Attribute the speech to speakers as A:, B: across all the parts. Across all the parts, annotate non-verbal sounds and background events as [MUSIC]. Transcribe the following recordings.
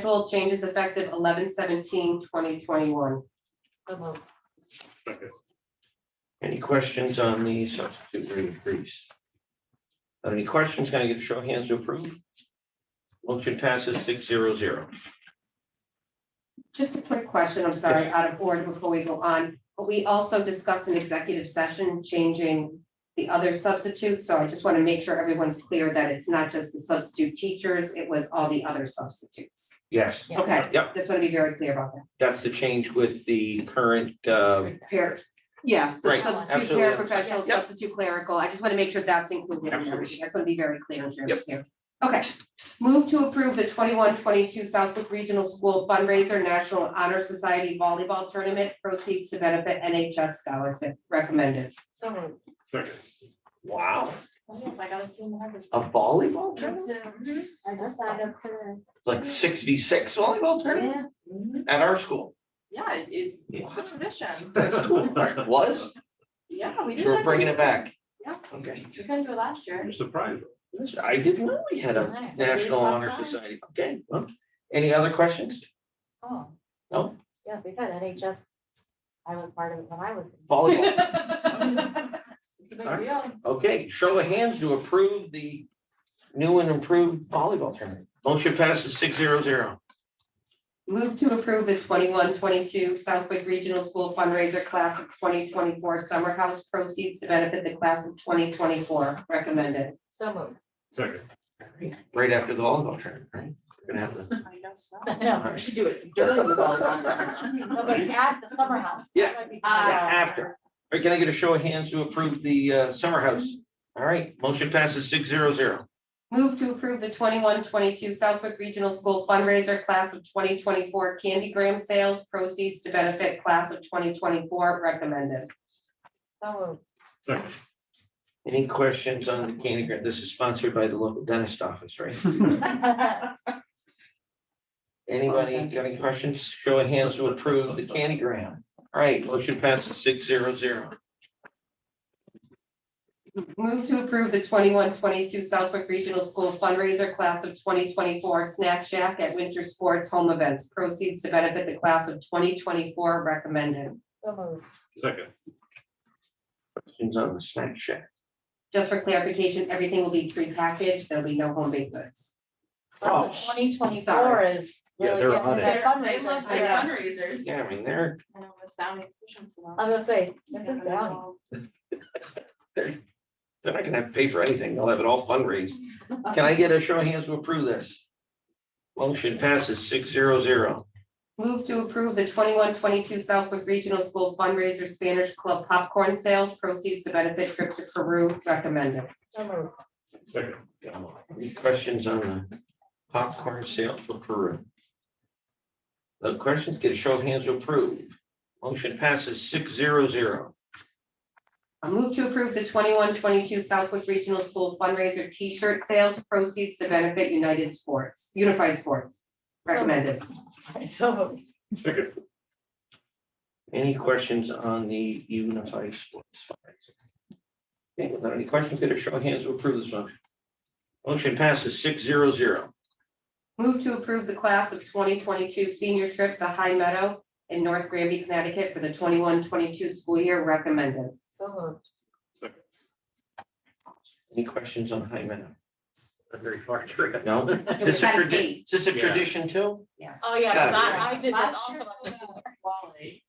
A: Control changes effective 2021.
B: Any questions on the substitute rate increase? Are there Any questions? Can I get a show of hands to approve? Motion passes six zero zero.
A: Just a quick question, I'm sorry, out of order before we go on, but we also discussed in executive session changing the other substitutes, so I just want to make sure everyone's clear that it's not just the substitute teachers, it was all the other substitutes.
B: Yes,
C: Yeah.
A: Okay,
B: Yep.
A: just want to be very clear about that.
B: that's the change with the current, uh,
A: Par- yes, the
B: Right,
A: substitute
B: absolutely.
A: paraprofessional,
B: Yep.
A: substitute clerical, I just want to make sure that's included. in everything. I
B: Absolutely.
A: just want to be very clear and
B: Yep.
A: here. Okay, move to approve the 21-22 Southwick Regional School fundraiser National Honor Society volleyball tournament proceeds to benefit NHS scholarship recommended.
C: So moved.
D: Second,
B: wow,
C: Oh, I got a few more.
B: a volleyball tournament?
C: Mhm. I just signed up for
B: It's like six v six volleyball
C: the.
B: tournament at our school.
C: Yeah, it- it, it's a tradition.
B: That's cool. It Was,
C: Yeah, we did.
B: so we're
C: that.
B: bringing it back.
C: Yeah.
B: Okay,
C: We couldn't do it last year.
D: I'm surprised.
B: I didn't know we had a
C: Nice.
B: National Honor Society. Okay, well, any other questions?
C: Oh.
B: No?
C: Yeah, we've had NHS. I was part of it when I was.
B: Volleyball.
C: [LAUGHS] It's a big
B: Alright.
C: deal.
B: Okay, show of hands to approve the new and improved volleyball tournament. Motion passes six zero zero.
A: Move to approve the 21-22 Southwick Regional School fundraiser class of twenty twenty-four summer house proceeds to benefit the class of twenty twenty-four recommended.
C: So
E: [LAUGHS]
C: moved. [LAUGHS]
D: Second,
B: Right after the volleyball tournament, right? We're gonna have the,
C: I guess so. No, we should do it during the [LAUGHS] volleyball. No, but at the summer house.
B: Yeah.
C: That might be
E: Uh,
B: yeah,
C: fun.
B: after. All right, can I get a show of hands to approve the uh, summer house? All right, motion passes six zero zero.
A: Move to approve the 21-22 Southwick Regional School fundraiser class of twenty twenty-four candy gram sales proceeds to benefit class of twenty twenty-four recommended.
C: So moved.
D: second,
B: Any questions on the candy grant? This is sponsored by the local dentist office, right? Anybody got any questions? Show of hands to approve the candy grant. All right, motion passes six zero zero.
A: Move to approve the 21-22 Southwick Regional School fundraiser class of twenty twenty-four snack shack at winter sports home events proceeds to benefit the class of twenty twenty-four recommended.
C: [LAUGHS] So moved.
D: second,
B: Questions on the snack shack?
A: Just for clarification, everything will be prepackaged, there'll be no home baked goods.
B: Oh.
C: Twenty twenty-four is.
B: Yeah,
C: really
B: they're
C: getting
B: on
C: to
B: it.
C: that
E: They
C: fundraiser.
E: love their
A: Yeah.
E: fundraisers.
B: Yeah, I mean, they're,
E: I know, it's down in Fishing Town.
C: I'm gonna say, this
E: Yeah,
C: is
E: I
C: down.
E: know.
B: they're not gonna have to pay for anything. They'll have it all fundraised. Can I get a show of hands to approve this? Motion passes six zero zero.
A: Move to approve the 21-22 Southwick Regional School fundraiser Spanish Club popcorn sales proceeds to benefit trip to Peru recommended.
C: So moved. [LAUGHS]
D: second,
B: Any questions on the popcorn sale for Peru? No questions? Get a show of hands to approve. Motion passes six zero zero.
A: I move to approve the 21-22 Southwick Regional School fundraiser T-shirt sales proceeds to benefit United Sports, Unified Sports recommended.
C: Sorry, so moved.
D: second,
B: Any questions on the unified sports? fundraiser? Okay, without any questions, get a show of hands to approve this motion. Motion passes six zero zero.
A: Move to approve the class of twenty twenty-two senior trip to High Meadow in North Granby, Connecticut for the 21-22 school year recommended.
C: So moved.
D: second,
B: Any questions on High Meadow? A very far trip. [LAUGHS] No, is this a
A: Gotta
B: tradi-
A: see.
B: is this a
D: Yeah.
B: tradition too?
E: Oh,
B: It's
E: yeah,
B: gotta
E: because
B: be,
E: I, I did this
C: Last year
E: also.
C: was
E: [LAUGHS]
C: Wally.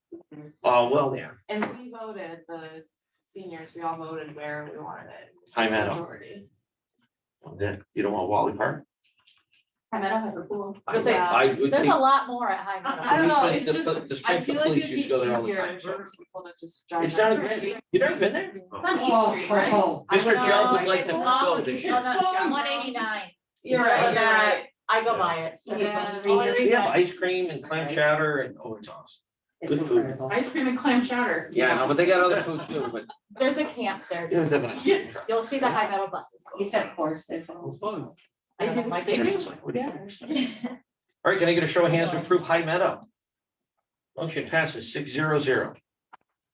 B: Oh, well, yeah.
E: And we voted, the seniors, we all voted where we wanted it.
B: High Meadow.
E: Majority.
B: Well, then, You don't want Wally Park?
E: High Meadow has a pool.
C: I was like,
E: Yeah.
B: I would
C: There's
B: think.
C: a lot more at High
E: I
C: Meadow.
E: don't know,
B: the-
E: it's
B: the-
E: just-
B: the- the
E: I
B: Springfield
E: feel like
B: police
E: it'd be
B: used to go there all the
E: easier
B: time, so.
E: for people to just drive.
B: It's
E: down
B: not a
E: there.
B: great, you've never been there?
E: It's on
A: Oh,
E: East Street,
A: oh,
E: right?
A: oh, I
B: Mr.
A: know.
B: Judd would like to
C: Oh,
B: go this
C: no,
B: year.
C: no, no, 189.
E: You're
C: It's
E: right,
C: on
E: you're
C: that.
E: right.
C: I go by it.
E: Yeah.
C: Only
B: They
C: reason
B: have
C: I-
B: ice cream and clam chowder and, oh, it's awesome.
A: It's
B: Good food.
A: incredible.
E: Ice cream and clam chowder.
B: Yeah, no, but they got other food too, [LAUGHS] but.
C: There's a camp there.
B: Yeah, definitely.
C: You'll see the High Meadow buses.
A: You said horses.
C: I didn't like
B: And
C: it.
B: it's like, what do you expect?
E: [LAUGHS]
B: All right, can I get a show of hands to approve High Meadow? Motion passes six zero zero.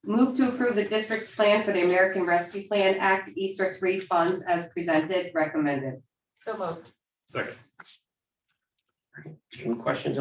A: Move to approve the district's plan for the American Rescue Plan Act Easter three funds as presented, recommended.
C: So moved.
D: second,
B: Any questions